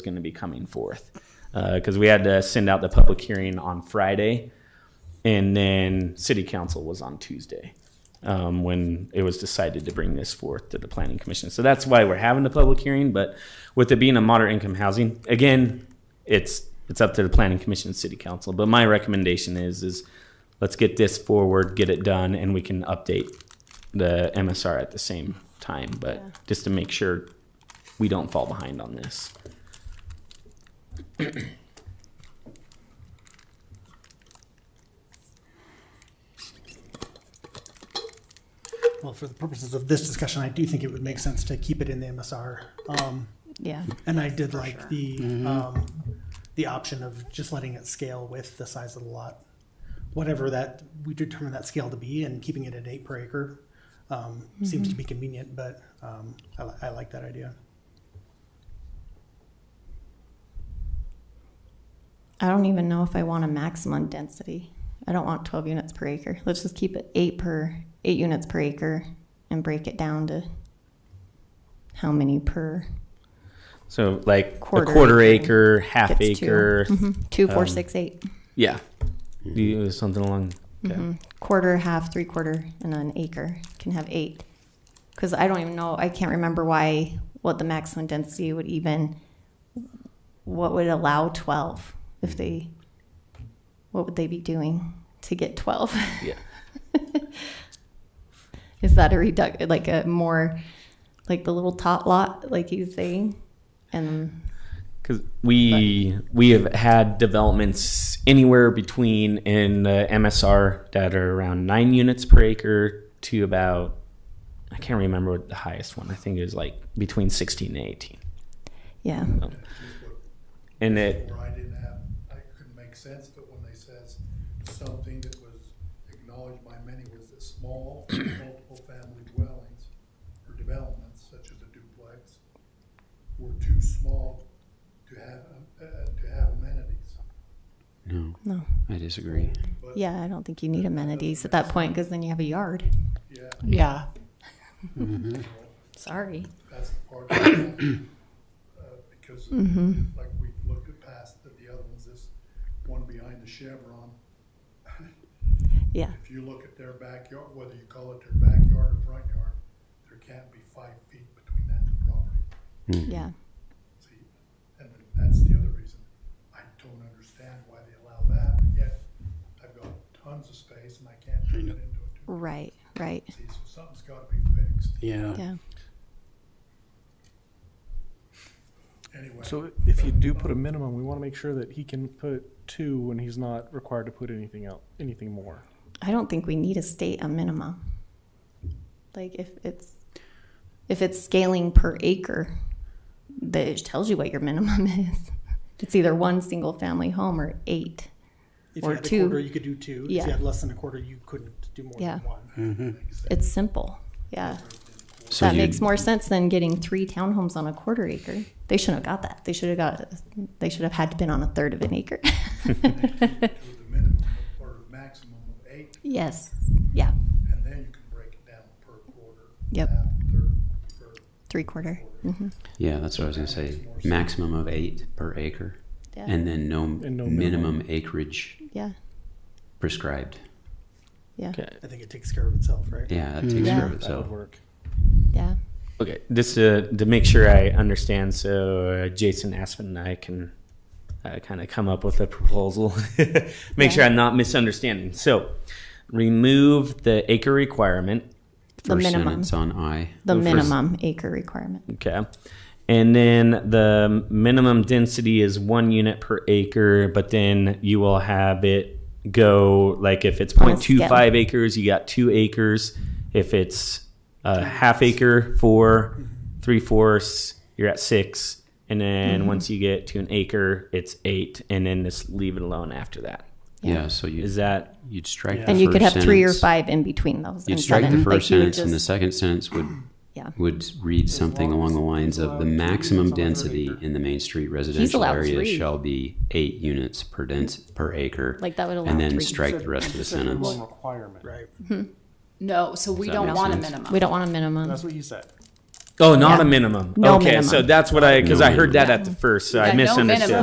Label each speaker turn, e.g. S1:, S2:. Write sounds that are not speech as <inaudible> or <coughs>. S1: going to be coming forth because we had to send out the public hearing on Friday, and then city council was on Tuesday um, when it was decided to bring this forth to the planning commission. So that's why we're having the public hearing. But with it being a moderate income housing, again, it's it's up to the planning commission and city council. But my recommendation is is let's get this forward, get it done, and we can update the MSR at the same time. But just to make sure we don't fall behind on this.
S2: Well, for the purposes of this discussion, I do think it would make sense to keep it in the MSR. Um,
S3: Yeah,
S2: and I did like the, um, the option of just letting it scale with the size of the lot. Whatever that, we determine that scale to be and keeping it at eight per acre, um, seems
S3: Mm-hmm.
S2: to be convenient, but, um, I li- I like that idea.
S3: I don't even know if I want a maximum density. I don't want twelve units per acre. Let's just keep it eight per, eight units per acre and break it down to how many per,
S1: So like
S3: Quarter
S1: a quarter acre,
S3: acre.
S1: half
S3: Gets two. Mm-hmm.
S1: acre,
S4: Mm-hmm.
S1: Mm-hmm.
S3: two, four,
S1: Um,
S3: six, eight.
S1: yeah, Do you- something along. Okay.
S3: Mm-hmm. Quarter, half, three quarter, and an acre can have eight. Cause I don't even know, I can't remember why, what the maximum density would even, what would allow twelve if they, what would they be doing to get twelve?
S1: Yeah.
S3: <laughs> Is that a reduct like a more like the little tot lot like he's saying? And
S1: Because we we have had developments anywhere between in the MSR that are around nine units per acre to about I can't remember what the highest one. I think it was like between sixteen and eighteen.
S3: yeah.
S1: And it
S5: Where I didn't have, I couldn't make sense, but when they says something that was acknowledged by many was that small, <coughs> multiple family dwellings or developments such as a duplex were too small to have, uh, to have amenities.
S4: No,
S3: No.
S4: I disagree.
S5: But,
S3: Yeah, I don't think you need amenities at that point because then you have a yard.
S5: yeah,
S6: Yeah.
S5: <laughs>
S3: Sorry.
S5: that's the part. that I- uh, Because
S3: Mm. Mm-hmm.
S5: like we looked at past the the other ones, this one behind the Chevron,
S3: Yeah.
S5: If you look at their backyard, whether you call it their backyard or front yard, there can't be five feet between that and the property.
S3: Yeah.
S5: See, and that's the other reason. I don't understand why they allow that, but yet I've got tons of space and I can't turn it into a two.
S3: Right. Right.
S5: See, so something's gotta be fixed.
S4: Yeah.
S3: Yeah.
S5: Anyway,
S7: So if you do put a minimum, we want to make sure that he can put two when he's not required to put anything out, anything more.
S3: I don't think we need to state a minimum. Like if it's if it's scaling per acre, that it tells you what your minimum <laughs> is. It's either one single family home or eight.
S2: If
S3: Or
S2: you had a
S3: two.
S2: quarter, you could do two. If
S3: Yeah.
S2: you had less than a quarter, you couldn't do more
S3: Yeah.
S2: than one.
S5: Mm.
S3: It's simple. Yeah.
S4: So
S3: That
S4: you-
S3: makes more sense than getting three townhomes on a quarter acre. They shouldn't have got that. They should have got, they should have had to been on a third of an acre.
S4: <laughs>
S5: do the minimum or maximum of eight,
S3: yes. Yeah.
S5: and then you can break it down per quarter.
S3: Yep.
S5: half, third, per
S3: Three quarter. Mm-hmm.
S4: Yeah, that's what I was gonna say. Maximum of eight per acre,
S3: Yeah.
S4: and then no,
S7: And no minimum.
S4: minimum acreage
S3: yeah.
S4: prescribed.
S3: Yeah.
S1: okay.
S2: I think it takes care of itself, right?
S4: Yeah, that takes
S3: Yeah.
S4: care of
S7: That would
S4: itself.
S7: work.
S3: Yeah.
S1: Okay, just to, to make sure I understand, so uh, Jason Aspen and I can uh, kind of come up with a proposal. <laughs> make sure I'm not misunderstanding. So, remove the acre requirement.
S3: The
S4: First
S3: minimum.
S4: sentence on I.
S3: The
S1: Well, first-
S3: minimum acre requirement.
S1: Okay. And then the minimum density is one unit per acre, but then you will have it go like if it's
S3: On a
S1: 0.25 acres, you got two acres. If it's a half acre, four, three fourths, you're at six. And
S3: Mm-hmm.
S1: then once you get to an acre, it's eight. And then just leave it alone after that.
S3: Yeah.
S4: Yeah. so you
S1: Is that
S4: you'd strike.
S7: Yeah.
S4: the
S3: And you could have
S4: first
S3: three or
S4: sentence-
S3: five in between those.
S4: You'd
S3: and
S4: strike
S3: seven.
S4: the
S3: Like,
S4: first
S3: you would
S4: sentence, and the
S3: just-
S4: second sentence would
S3: <coughs> Yeah.
S4: would read something along the lines of the maximum
S7: allowed two units on
S4: density
S7: per acre."
S4: in the main street residential
S3: allowed
S4: area
S3: three.
S4: shall be eight units per dens per acre.
S3: Like that would allow
S4: and then
S3: three.
S4: strike the rest of
S7: <laughs>
S4: the sentence.
S7: Minimum requirement.
S2: Right.
S6: No, so we
S4: that
S6: don't
S4: make
S6: want a
S4: sense?
S6: minimum.
S3: We don't want a minimum.
S7: That's what you said.
S1: Oh, not
S3: Yeah.
S1: a minimum.
S3: No
S1: okay,
S3: minimum.
S1: so that's what I because
S4: No
S1: I heard
S4: minimum.
S1: that at the first, so
S6: Yeah,
S1: I
S6: no
S1: misunderstood.
S6: minimum.